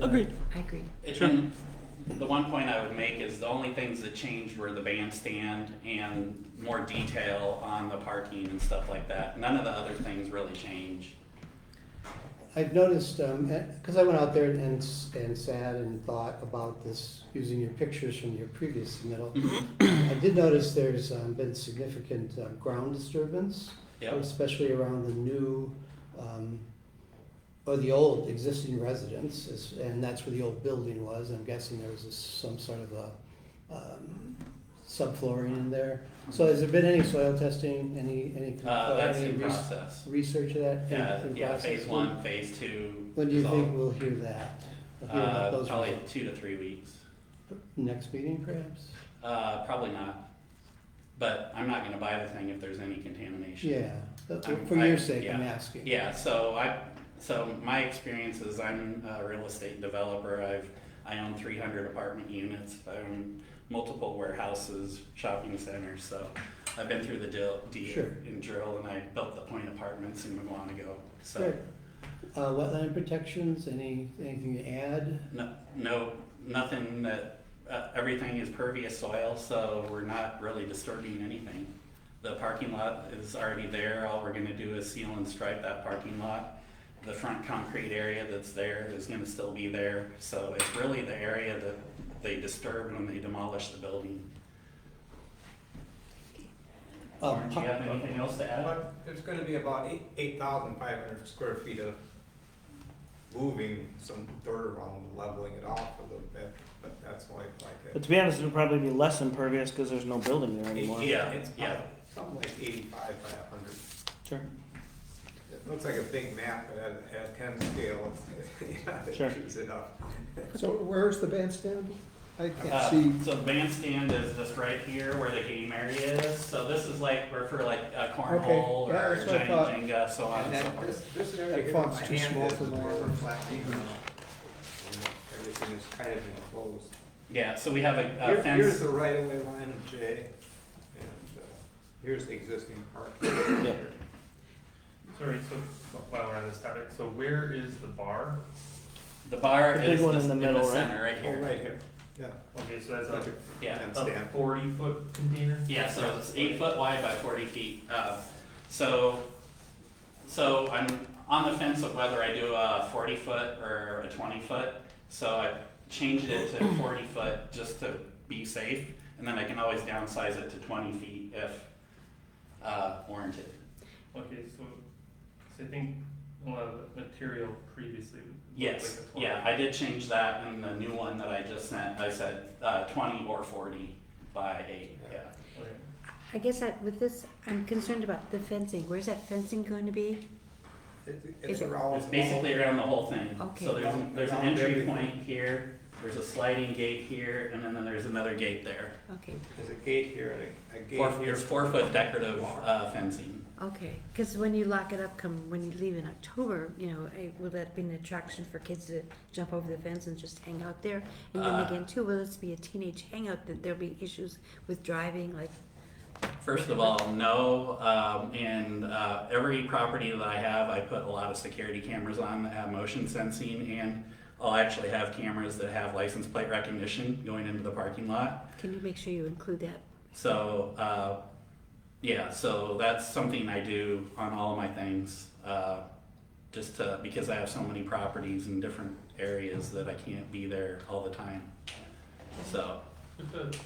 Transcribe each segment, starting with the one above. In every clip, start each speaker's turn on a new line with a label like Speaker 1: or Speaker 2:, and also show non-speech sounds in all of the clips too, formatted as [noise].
Speaker 1: Agreed.
Speaker 2: I agree.
Speaker 3: It- and The one point I would make is the only things that changed were the bandstand and more detail on the parking and stuff like that. None of the other things really changed.
Speaker 4: I've noticed, because I went out there and, s- and sat and thought about this, using your pictures from your previous submittal.
Speaker 3: Mm-hmm.
Speaker 4: I did notice there's um, been significant uh, ground disturbance,
Speaker 3: Yep,
Speaker 4: especially around the new, um, or the old existing residence, is- and that's where the old building was. I'm guessing there was a s- some sort of a um, subflooring in there. So has there been any soil testing, any, any?
Speaker 3: uh, that's
Speaker 4: any
Speaker 3: in
Speaker 4: res-
Speaker 3: process.
Speaker 4: Research of that? in-
Speaker 3: Yeah,
Speaker 4: in
Speaker 3: yeah,
Speaker 4: process?
Speaker 3: phase one, phase two.
Speaker 4: When do you
Speaker 3: is all-
Speaker 4: think we'll hear that? We'll hear about
Speaker 3: Uh,
Speaker 4: those
Speaker 3: probably two to three weeks.
Speaker 4: Next meeting perhaps?
Speaker 3: Uh, probably not. But I'm not gonna buy the thing if there's any contamination.
Speaker 4: Yeah, but
Speaker 3: I'm-
Speaker 4: for
Speaker 3: Um, I-
Speaker 4: your sake,
Speaker 3: yeah.
Speaker 4: I'm asking.
Speaker 3: Yeah, so I, so my experience is I'm a real estate developer. I've, I own three hundred apartment units. I own multiple warehouses, shopping centers, so I've been through the deal, deal
Speaker 4: Sure.
Speaker 3: and drill, and I built the point apartments in Mawanago. So,
Speaker 4: Good. Uh, wetland protections, any, anything to add?
Speaker 3: no, no, nothing that, uh, everything is pervious soil, so we're not really disturbing anything. The parking lot is already there. All we're gonna do is seal and stripe that parking lot. The front concrete area that's there is gonna still be there, so it's really the area that they disturbed when they demolished the building.
Speaker 4: Uh,
Speaker 3: Lauren, do you have anything else to add?
Speaker 5: But It's gonna be about eight, eight thousand five hundred square feet of moving some dirt around, leveling it off a little bit, but that's why it's like. uh,
Speaker 1: But to be honest, it'll probably be less impervious because there's no building there
Speaker 5: a-
Speaker 1: anymore.
Speaker 3: Yeah.
Speaker 5: It's
Speaker 3: yeah.
Speaker 5: probably something like eighty-five by a hundred.
Speaker 1: Sure.
Speaker 5: It looks like a big map, but at, at ten scale, it's, [laughs] yeah,
Speaker 1: Sure.
Speaker 5: it chews it up.
Speaker 6: So where's the bandstand? I
Speaker 3: Uh,
Speaker 6: can't see.
Speaker 3: So the bandstand is just right here where the game area is, so this is like, we're for like a cornhole
Speaker 6: yeah,
Speaker 3: or
Speaker 6: that's what I
Speaker 3: giant
Speaker 6: thought.
Speaker 3: Jenga, so on
Speaker 5: And
Speaker 3: and so
Speaker 5: then
Speaker 3: forth.
Speaker 5: this, this area
Speaker 6: That
Speaker 5: here, my
Speaker 6: font's too small
Speaker 5: hand is
Speaker 6: for my-
Speaker 5: more reflecting. and Everything is kind of enclosed.
Speaker 3: Yeah, so we have a
Speaker 5: Here-
Speaker 3: a Uh,
Speaker 5: Here's
Speaker 3: fence,
Speaker 5: the right of way line of J, and, uh, here's the existing park.
Speaker 7: Sorry, so while we're on this topic, so where is the bar?
Speaker 3: the bar
Speaker 1: The big
Speaker 3: is
Speaker 1: one
Speaker 3: the-
Speaker 1: in the
Speaker 3: in
Speaker 1: middle,
Speaker 3: the
Speaker 1: right?
Speaker 3: center, right
Speaker 5: Oh,
Speaker 3: here.
Speaker 5: right here, yeah.
Speaker 7: Okay, so that's like
Speaker 3: Yeah,
Speaker 5: And
Speaker 7: a
Speaker 5: stand.
Speaker 7: forty foot container?
Speaker 3: Yeah, so it's eight foot wide by forty feet. Uh, So, so I'm on the fence of whether I do a forty foot or a twenty foot. So I changed it
Speaker 5: [coughs]
Speaker 3: to forty foot just to be safe, and then I can always downsize it to twenty feet if uh, warranted.
Speaker 7: Okay, so, so I think a lot of the material previously. looked
Speaker 3: Yes,
Speaker 7: like a 20.
Speaker 3: yeah, I did change that in the new one that I just sent. I said uh, twenty or forty by eight, yeah.
Speaker 7: Okay.
Speaker 2: I guess I, with this, I'm concerned about the fencing. Where's that fencing going to be?
Speaker 5: It's-
Speaker 2: Is
Speaker 5: It's
Speaker 2: it-
Speaker 5: around.
Speaker 3: It's basically around the whole thing.
Speaker 2: Okay.
Speaker 3: So there's, there's an
Speaker 5: Around
Speaker 3: entry
Speaker 5: everything.
Speaker 3: point here, there's a sliding gate here, and then there's another gate there.
Speaker 2: Okay,
Speaker 5: There's a gate here, and a, a gate.
Speaker 3: Four,
Speaker 5: here.
Speaker 3: there's four foot decorative uh, fencing.
Speaker 2: okay. Because when you lock it up, come when you leave in October, you know, eh, will that be an attraction for kids to jump over the fence and just hang out there? And then
Speaker 3: Uh.
Speaker 2: again, too, will this be a teenage hangout that there'll be issues with driving? Like,
Speaker 3: First of all, no, um, and, uh, every property that I have, I put a lot of security cameras on that have motion sensing, and I'll actually have cameras that have license plate recognition going into the parking lot.
Speaker 2: can you make sure you include that?
Speaker 3: So, uh, yeah, so that's something I do on all of my things, uh, just to, because I have so many properties in different areas that I can't be there all the time. So,
Speaker 7: With the-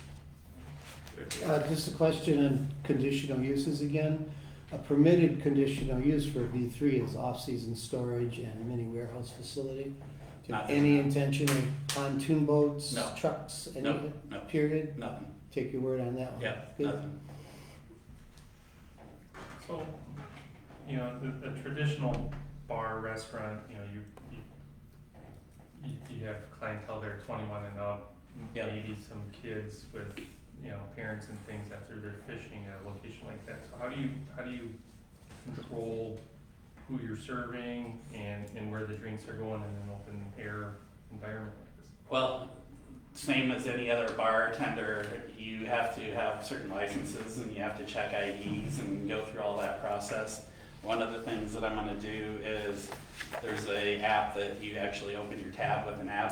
Speaker 4: Uh, just a question on conditional uses again. A permitted conditional use for a B three is off-season storage and mini warehouse facility. Do you have
Speaker 3: Not-
Speaker 4: any intention of pontoon boats,
Speaker 3: No.
Speaker 4: trucks, any,
Speaker 3: no, no,
Speaker 4: period?
Speaker 3: nothing,
Speaker 4: Take your word on that one.
Speaker 3: yeah,
Speaker 4: Good.
Speaker 3: nothing.
Speaker 7: So, you know, the, the traditional bar restaurant, you know, you, you, you- you have clientele there twenty-one and up.
Speaker 3: Yeah.
Speaker 7: Maybe some kids with, you know, parents and things after they're fishing at a location like that. So how do you, how do you control who you're serving and, and where the drinks are going in an open air environment like this?
Speaker 3: Well, same as any other bartender, you have to have certain licenses and you have to check IDs and go through all that process. One of the things that I'm gonna do is, there's a app that you actually open your tab with an app